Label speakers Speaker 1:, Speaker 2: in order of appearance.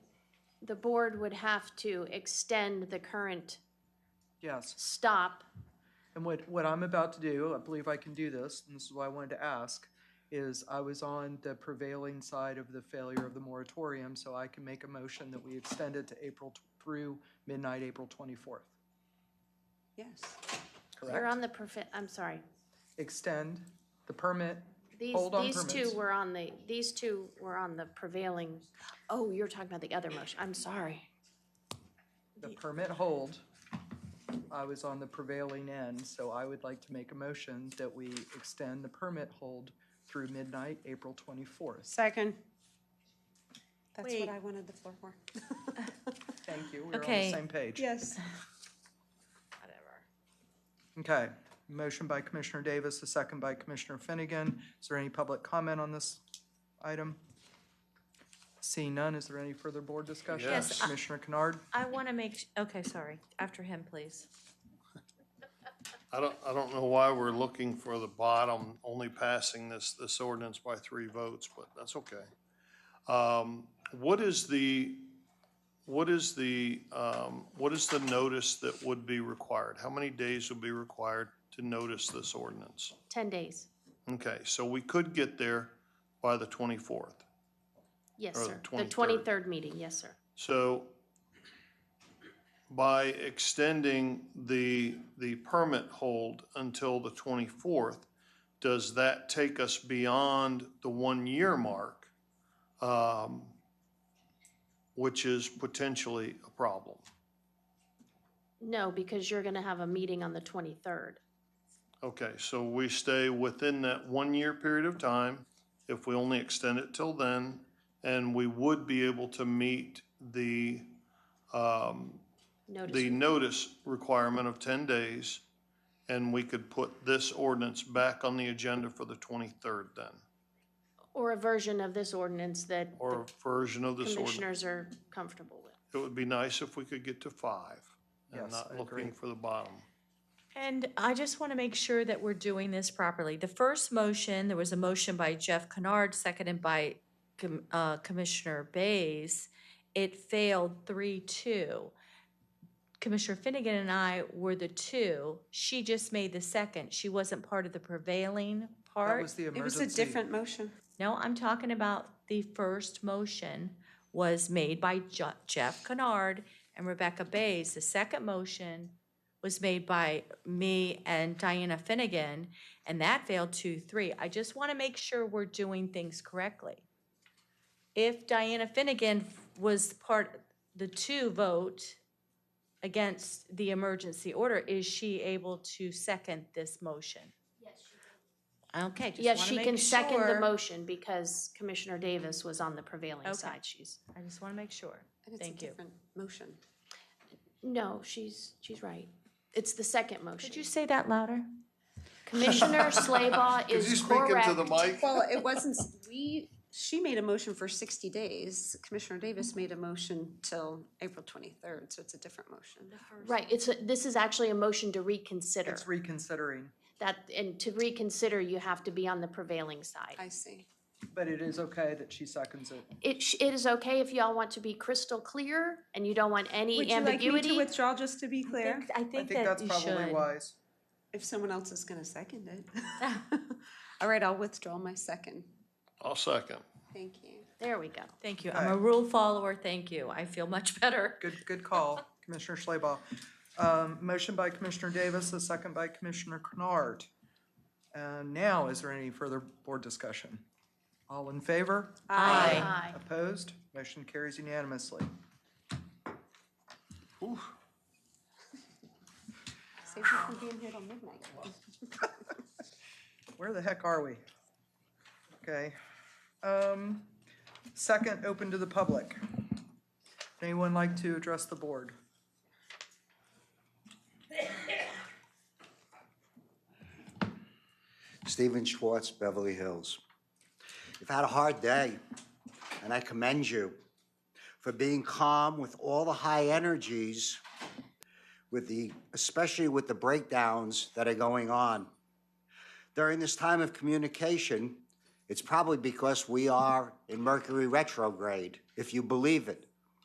Speaker 1: the board would have to extend the current
Speaker 2: Yes,
Speaker 1: stop.
Speaker 2: and what, what I'm about to do, I believe I can do this, and this is why I wanted to ask, is I was on the prevailing side of the failure of the moratorium, so I can make a motion that we extend it to April, tw- through midnight, April twenty-fourth,
Speaker 3: Yes.
Speaker 1: You're
Speaker 2: correct?
Speaker 1: on the perfect, I'm sorry.
Speaker 2: Extend the permit,
Speaker 1: These,
Speaker 2: Hold on
Speaker 1: these two
Speaker 2: permits.
Speaker 1: were on the, these two were on the prevailing, oh, you're talking about the other motion. I'm sorry.
Speaker 2: the permit hold. I was on the prevailing end, so I would like to make a motion that we extend the permit hold through midnight, April twenty-fourth.
Speaker 3: Second. That's
Speaker 4: Wait.
Speaker 3: what I wanted the floor for.
Speaker 2: Thank you, we're on the
Speaker 4: Okay.
Speaker 2: same page.
Speaker 3: Yes.
Speaker 2: Okay, motion by Commissioner Davis, a second by Commissioner Finnegan. Is there any public comment on this item? Seeing none, is there any further board discussion?
Speaker 4: Yes, I-
Speaker 2: Commissioner Kennard?
Speaker 4: I want to make, okay, sorry, after him, please.
Speaker 5: I don't, I don't know why we're looking for the bottom, only passing this, this ordinance by three votes, but that's okay. Um, What is the, what is the, um, what is the notice that would be required? How many days would be required to notice this ordinance?
Speaker 1: 10 days.
Speaker 5: Okay, so we could get there by the twenty-fourth.
Speaker 1: Yes,
Speaker 5: Or
Speaker 1: sir. The
Speaker 5: the 23rd.
Speaker 1: 23rd meeting, yes, sir.
Speaker 5: So by extending the, the permit hold until the 24th, does that take us beyond the one-year mark, um, which is potentially a problem?
Speaker 1: No, because you're going to have a meeting on the 23rd.
Speaker 5: Okay, so we stay within that one-year period of time if we only extend it till then, and we would be able to meet the, um, the
Speaker 1: Notice,
Speaker 5: notice requirement of 10 days, and we could put this ordinance back on the agenda for the 23rd then,
Speaker 1: or a version of this ordinance that
Speaker 5: or a version of this ordinance.
Speaker 1: commissioners are comfortable with.
Speaker 5: It would be nice if we could get to five and
Speaker 2: Yes, I
Speaker 5: not
Speaker 2: agree.
Speaker 5: looking for the bottom.
Speaker 4: And I just want to make sure that we're doing this properly. The first motion, there was a motion by Jeff Kennard, seconded by Com- uh, Commissioner Bays. It failed three-two. Commissioner Finnegan and I were the two. She just made the second. She wasn't part of the prevailing part.
Speaker 2: That was the
Speaker 3: It was a
Speaker 2: emergency.
Speaker 3: different motion.
Speaker 4: No, I'm talking about the first motion was made by Jo- Jeff Kennard and Rebecca Bays. The second motion was made by me and Diana Finnegan, and that failed two, three. I just want to make sure we're doing things correctly. If Diana Finnegan was part, the two vote against the emergency order, is she able to second this motion? Okay, just
Speaker 1: Yes,
Speaker 4: wanna
Speaker 1: she
Speaker 4: make
Speaker 1: can second the
Speaker 4: sure.
Speaker 1: motion because Commissioner Davis was on the prevailing
Speaker 4: Okay.
Speaker 1: side. She's,
Speaker 4: I just want to make sure.
Speaker 3: And it's a
Speaker 4: Thank you.
Speaker 3: different motion.
Speaker 1: no, she's, she's right. It's the second
Speaker 4: Could
Speaker 1: motion.
Speaker 4: you say that louder?
Speaker 1: Commissioner Slaybaugh
Speaker 5: Could you
Speaker 1: is
Speaker 5: speak
Speaker 1: correct.
Speaker 5: into the mic?
Speaker 3: Well, it wasn't, we, she made a motion for sixty days. Commissioner Davis made a motion till April twenty-third, so it's a different motion.
Speaker 1: Right, it's, a- this is actually a motion to reconsider.
Speaker 2: It's reconsidering,
Speaker 1: That, and to reconsider, you have to be on the prevailing side.
Speaker 3: I see.
Speaker 2: but it is okay that she seconds it.
Speaker 1: It, sh- it is okay if y'all want to be crystal clear and you don't want any ambiguity.
Speaker 3: withdraw, just to be
Speaker 4: I
Speaker 2: I
Speaker 4: think
Speaker 2: think
Speaker 4: that
Speaker 2: that's
Speaker 4: you
Speaker 2: probably
Speaker 4: should.
Speaker 2: wise.
Speaker 3: If someone else is gonna second it. All right, I'll withdraw my second.
Speaker 5: I'll second.
Speaker 3: Thank you.
Speaker 1: There we go.
Speaker 4: Thank you. I'm a rule follower. Thank you. I feel much better.
Speaker 2: Good, good call, Commissioner Schlebaugh. Um, motion by Commissioner Davis, a second by Commissioner Kennard. And now, is there any further board discussion? All in favor?
Speaker 4: Aye.
Speaker 1: Aye.
Speaker 2: Opposed? Motion carries unanimously.
Speaker 3: Save you from being here till midnight.
Speaker 2: Where the heck are we? Okay. Um, Second, open to the public. Anyone like to address the board?
Speaker 6: Stephen Schwartz, Beverly Hills. You've had a hard day, and I commend you for being calm with all the high energies, with the, especially with the breakdowns that are going on. During this time of communication, it's probably because we are in Mercury retrograde, if you believe it.